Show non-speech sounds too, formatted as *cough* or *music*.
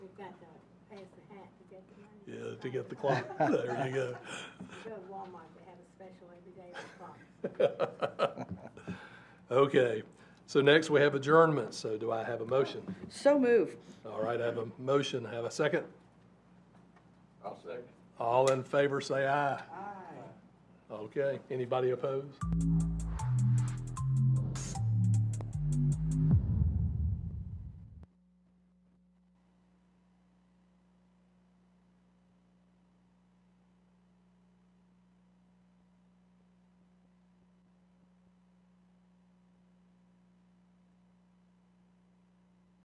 got to pass the hat to get the money. Yeah, to get the clock. *laughs* There you go. Go to Walmart, they have a special every day with clocks. Okay, so next we have adjournment, so do I have a motion? So move. All right, I have a motion, have a second? I'll second. All in favor, say aye. Aye. Okay, anybody opposed?